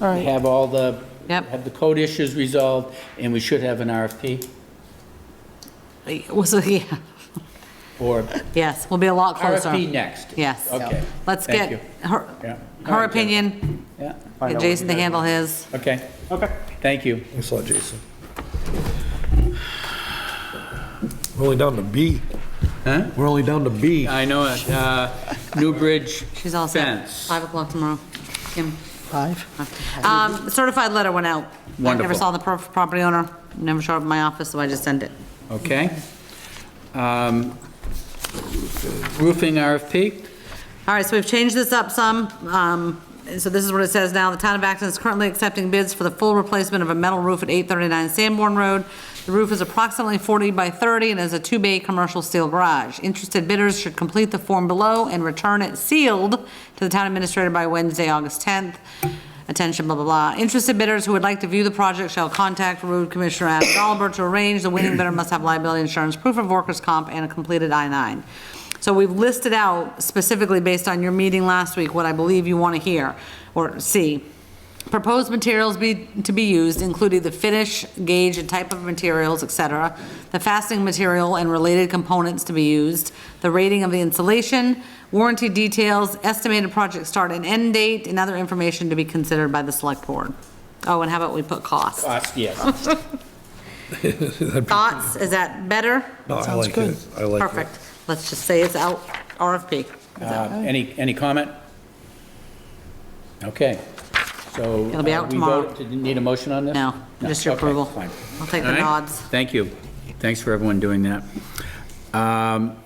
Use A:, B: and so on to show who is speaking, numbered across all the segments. A: All right.
B: Have all the,
C: Yep.
B: have the code issues resolved, and we should have an RFP,
C: Well, so, yeah,
B: or
C: yes, we'll be a lot closer.
B: RFP next.
C: Yes.
B: Okay.
C: Let's get
B: Thank you.
C: her,
B: Yeah. All
C: her
B: right, Jeff.
C: opinion,
B: Yeah,
D: Find
C: get
D: out what
C: Jason to
D: you guys
C: handle
D: want.
C: his.
B: okay. Okay. Thank you.
E: Thanks a lot, Jason. We're only down to B.
B: Huh?
E: We're only down to B.
B: I know it. Uh, New Bridge
C: She's all set.
B: fence.
C: Five o'clock tomorrow. Kim.
A: Five?
C: Um, certified letter went out. I never
B: Wonderful.
C: saw the pro- property owner, never showed up in my office, so I just sent it.
B: Okay. Um, Roofing RFP?
C: All right, so we've changed this up some. um, and So this is what it says now. The town of Acton is currently accepting bids for the full replacement of a metal roof at 839 Sanborn Road. The roof is approximately 40 by 30 and is a two-bay commercial steel garage. Interested bidders should complete the form below and return it sealed to the town administrator by Wednesday, August 10th. Attention, blah, blah, blah. Interested bidders who would like to view the project shall contact Road Commissioner Adam Oliver to arrange. The winning bidder must have liability insurance, proof of workers' comp, and a completed I-9. So we've listed out specifically based on your meeting last week, what I believe you want to hear or see. Proposed materials be, to be used, including the finish, gauge, and type of materials, et cetera, the fastening material and related components to be used, the rating of the insulation, warranty details, estimated project start and end date, and other information to be considered by the select board. Oh, and how about we put cost?
B: Cost, Uh,
C: Oh.
B: yes.
C: Thoughts, is that better?
E: No, I
A: Sounds
E: like
A: good.
E: it. I like it.
C: Perfect. Let's just say it's out, RFP.
B: Uh, Any, any comment? Okay, so.
C: It'll be
B: uh,
C: out
B: we
C: tomorrow.
B: vote- Did you need a motion on this?
C: No, just your
B: okay,
C: approval.
B: fine.
C: I'll take the
B: All right,
C: nods.
B: Thank you. Thanks for everyone doing that. Um,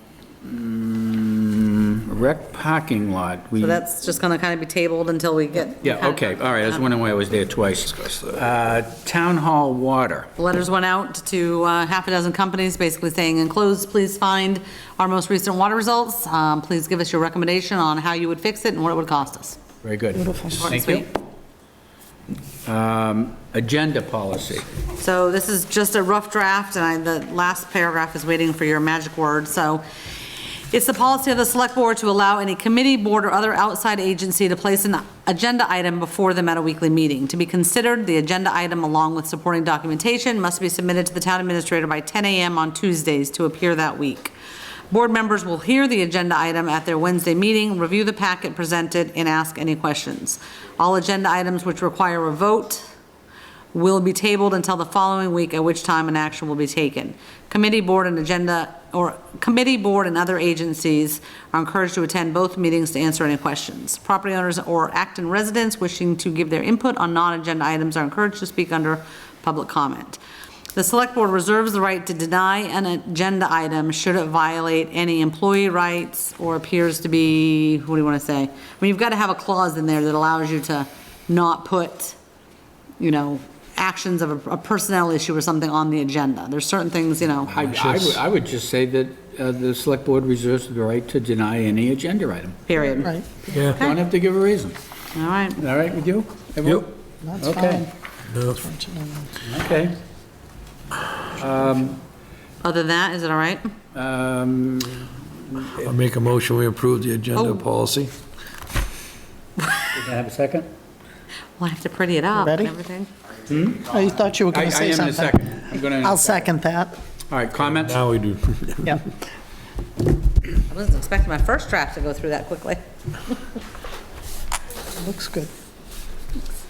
B: mm, Rec parking lot, we.
C: So that's just gonna kind of be tabled until we get.
B: Yeah, okay, all right, I was wondering why I was there twice. Uh, Town Hall Water,
C: Letters went out to uh, half a dozen companies, basically saying, enclosed, please find our most recent water results. Um, Please give us your recommendation on how you would fix it and what it would cost us.
B: very good.
C: Short and
B: Thank you. Um, Agenda policy,
C: So this is just a rough draft, and I, the last paragraph is waiting for your magic word, so. It's the policy of the select board to allow any committee, board, or other outside agency to place an agenda item before them at a weekly meeting. To be considered, the agenda item along with supporting documentation must be submitted to the town administrator by 10 AM on Tuesdays to appear that week. Board members will hear the agenda item at their Wednesday meeting, review the packet presented, and ask any questions. All agenda items which require a vote will be tabled until the following week, at which time an action will be taken. Committee, board, and agenda, or committee, board, and other agencies are encouraged to attend both meetings to answer any questions. Property owners or Acton residents wishing to give their input on non-agenda items are encouraged to speak under public comment. The select board reserves the right to deny an agenda item should it violate any employee rights or appears to be, what do you want to say? I mean, you've got to have a clause in there that allows you to not put you know, actions of a- a personnel issue or something on the agenda. There's certain things, you know,
B: I- I would- I would just say that uh, the select board reserves the right to deny any agenda item.
C: period.
A: Right,
E: Yeah,
B: Don't have to give a reason.
C: All right.
B: All right with you? everyone?
A: that's
B: Okay.
A: fine.
E: no, it's-
B: Okay.
C: Other than that, is it all right?
B: Um,
E: I make a motion, we approve the agenda
C: Oh.
E: policy.
B: Can I have a second?
C: Well, I have to pretty it up and
A: Ready?
C: everything.
A: I thought you were
B: I I
A: going to say
B: am in a
A: something.
B: second. I'm gonna-
A: I'll second that,
B: All right, comments?
E: Now we do.
A: yeah.
C: I wasn't expecting my first draft to go through that quickly.
A: Looks good.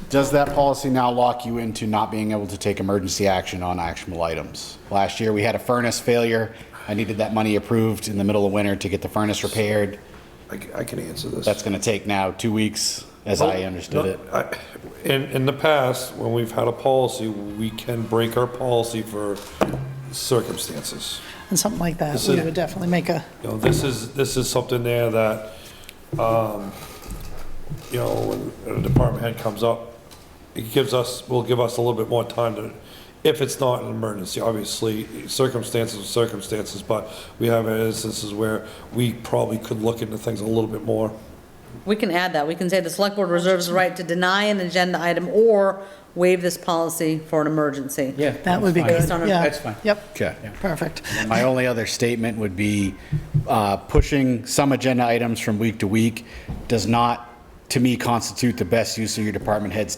D: Does that policy now lock you into not being able to take emergency action on actionable items? Last year, we had a furnace failure. I needed that money approved in the middle of winter to get the furnace repaired.
E: I c- I can answer this.
D: That's going to take now two weeks, as I understood it.
E: I- In, in the past, when we've had a policy, we can break our policy for circumstances.
A: And something like that,
E: This
A: we
E: is-
A: would definitely make a,
E: You know, this is, this is something there that, um, you know, when a department head comes up, it gives us, will give us a little bit more time to, if it's not an emergency, obviously, circumstances are circumstances, but we have instances where we probably could look into things a little bit more.
C: We can add that. We can say the select board reserves the right to deny an agenda item or waive this policy for an emergency.
B: Yeah.
A: that would be
B: that's
A: good,
C: Based on our-
A: yeah.
B: That's fine.
A: Yep.
D: Okay.
A: Perfect.
D: And My only other statement would be uh, pushing some agenda items from week to week does not, to me, constitute the best use of your department head's